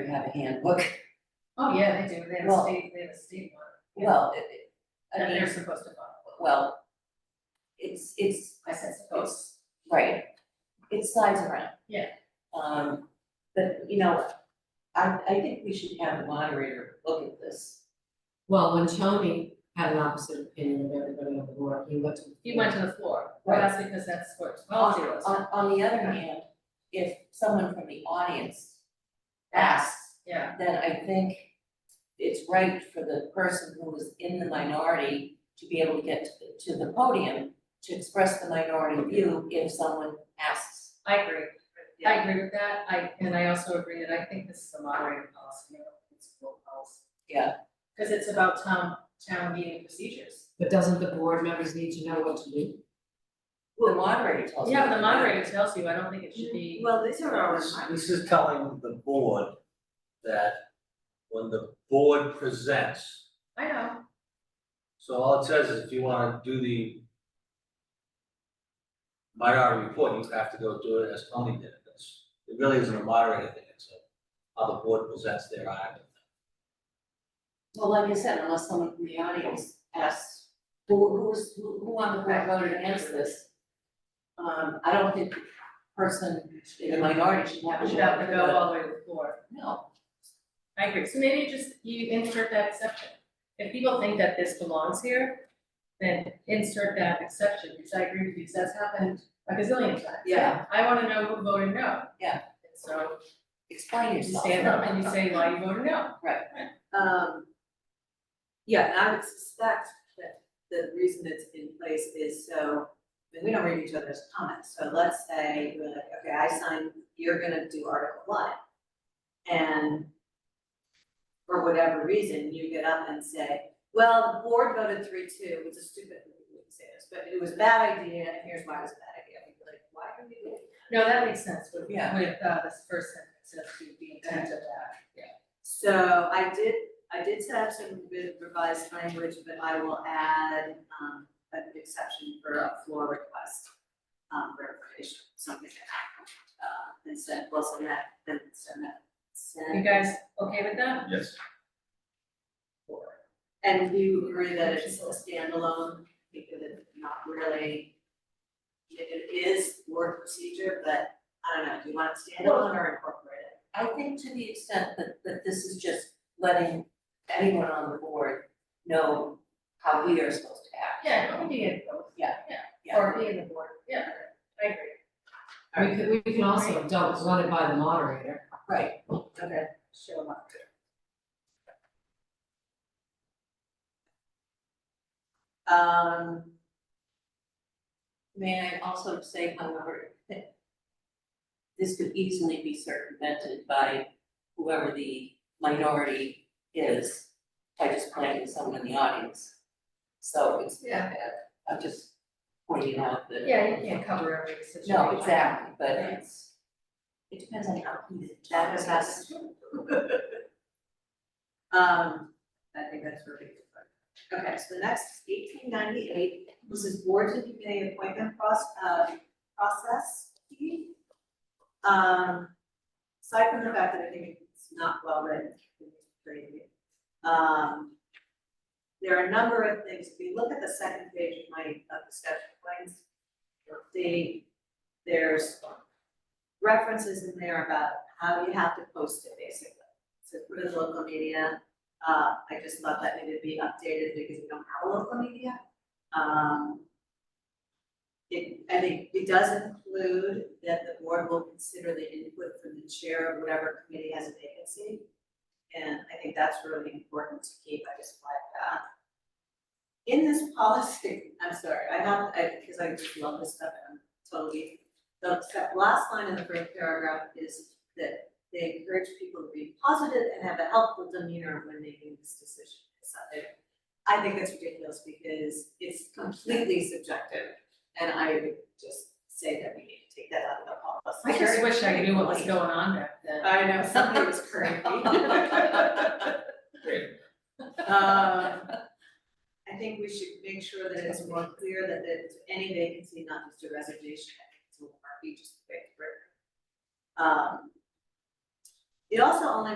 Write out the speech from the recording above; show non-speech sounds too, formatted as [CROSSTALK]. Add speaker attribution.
Speaker 1: have a handbook.
Speaker 2: Oh, yeah, they do, they have a
Speaker 1: Well-
Speaker 2: state, they have a state one,
Speaker 1: Well, it- it- I
Speaker 2: and they're
Speaker 1: mean,
Speaker 2: supposed to follow,
Speaker 1: well, it's, it's,
Speaker 2: I said supposed.
Speaker 1: right, it slides around.
Speaker 2: Yeah.
Speaker 1: Um, but, you know, I, I think we should have the moderator look at this.
Speaker 3: Well, when Tony had an opposite opinion of everybody on the board, he went to.
Speaker 2: He went to the floor,
Speaker 1: Right.
Speaker 2: well, that's because that's what twelve zero is,
Speaker 1: On, on the other hand, if someone from the audience asks,
Speaker 2: yeah,
Speaker 1: then I think it's right for the person who is in the minority to be able to get to, to the podium to express the minority view if someone asks.
Speaker 2: I agree. I agree with that, I, and I also agree that I think this is a moderating policy, not a principal policy.
Speaker 1: Yeah.
Speaker 2: Cause it's about town, town meeting procedures.
Speaker 3: But doesn't the board members need to know what to do?
Speaker 1: The moderator tells me.
Speaker 2: Yeah, but the moderator tells you, I don't think it should be,
Speaker 4: Well, these are our
Speaker 5: This- This is telling the board that when the board presents,
Speaker 1: Mm-hmm.
Speaker 2: I know,
Speaker 5: so all it says is if you wanna do the minority report, you have to go do it as Tony did. That's, it really isn't a moderator thing, it's a- how the board presents their item.
Speaker 1: Well, like I said, unless someone from the audience asks, who, who was, who who on the board voted against this? Um, I don't think the person in the minority should have
Speaker 2: we
Speaker 1: to
Speaker 2: should
Speaker 1: go
Speaker 2: have to
Speaker 1: through
Speaker 2: go
Speaker 1: the-
Speaker 2: all the way to the floor.
Speaker 1: No,
Speaker 2: I agree, so maybe just you insert that exception. If people think that this belongs here, then insert that exception, which I agree with you, 'cause that's happened a gazillion times.
Speaker 1: Yeah.
Speaker 2: I wanna know who voted no.
Speaker 1: Yeah.
Speaker 2: And So
Speaker 1: explain
Speaker 2: you
Speaker 1: yourself.
Speaker 2: stand up and you say why you voted no.
Speaker 4: Um. Yeah, and I would suspect that the reason it's in place is so, I mean, we don't read each other's comments, so let's say, we're like, okay, I signed, you're gonna do article one. And. For whatever reason, you get up and say, well, the board voted three two, which is stupid, we wouldn't say this, but it was a bad idea, and here's why it was a bad idea, we'd be like, why are we doing that?
Speaker 2: No, that makes sense with, with,
Speaker 1: Yeah.
Speaker 2: uh, this first sentence, as to the intent of that.
Speaker 4: So I did, I did set up some good revised language, but I will add, um, an exception for a floor request. Um, verification, something like that, uh, instead, well, send that, then send that,
Speaker 2: You
Speaker 4: send.
Speaker 2: guys okay with that?
Speaker 6: Yes.
Speaker 4: And you agree that it's a standalone, because it's not really, it it is board procedure, but I don't know, do you want it standalone or incorporated?
Speaker 1: I think to the extent that, that this is just letting anyone on the board know how we are supposed to act.
Speaker 2: Yeah, I think you get both.
Speaker 1: Yeah.
Speaker 2: Yeah, or be in the board, yeah, I agree.
Speaker 3: We could, we can also don't run it by the moderator.
Speaker 1: Right,
Speaker 4: Okay, show them up. Um,
Speaker 1: may I also say, however, that this could easily be circumvented by whoever the minority is by just planting someone in the audience. So it's not bad, I'm just pointing out that.
Speaker 2: Yeah, you can't cover every situation.
Speaker 1: No, exactly, but it's, it depends on how he's.
Speaker 4: that is us. [LAUGHS] Um, I think that's really good. Okay, so the next eighteen ninety-eight, this is boards and committee appointment process, uh, process. Um, aside from the fact that I think it's not well written, it's pretty, um, there are a number of things, if you look at the second page of my, of the schedule points, you'll see there's references in there about how you have to post it, basically. So for the local media, uh, I just thought that needed to be updated because we don't have a local media. Um. It, I think it does include that the board will consider the input from the chair of whatever committee has a vacancy. And I think that's really important to keep, I just like that. In this policy, [LAUGHS] I'm sorry, I have, I, because I just love this stuff and I'm totally. The the last line in the first paragraph is that they encourage people to be positive and have a helpful demeanor when making this decision. It's not there. I think that's ridiculous because it's completely subjective, and I would just say that we need to take that out of the policy.
Speaker 2: I just wish I knew what was going on back then.
Speaker 4: I know, something [LAUGHS] was crazy.
Speaker 6: Great.
Speaker 4: Um, I think we should make sure that it's more clear that it's any vacancy, not just a resignation, I think it's a little murky, just the way it's written. Um, It also only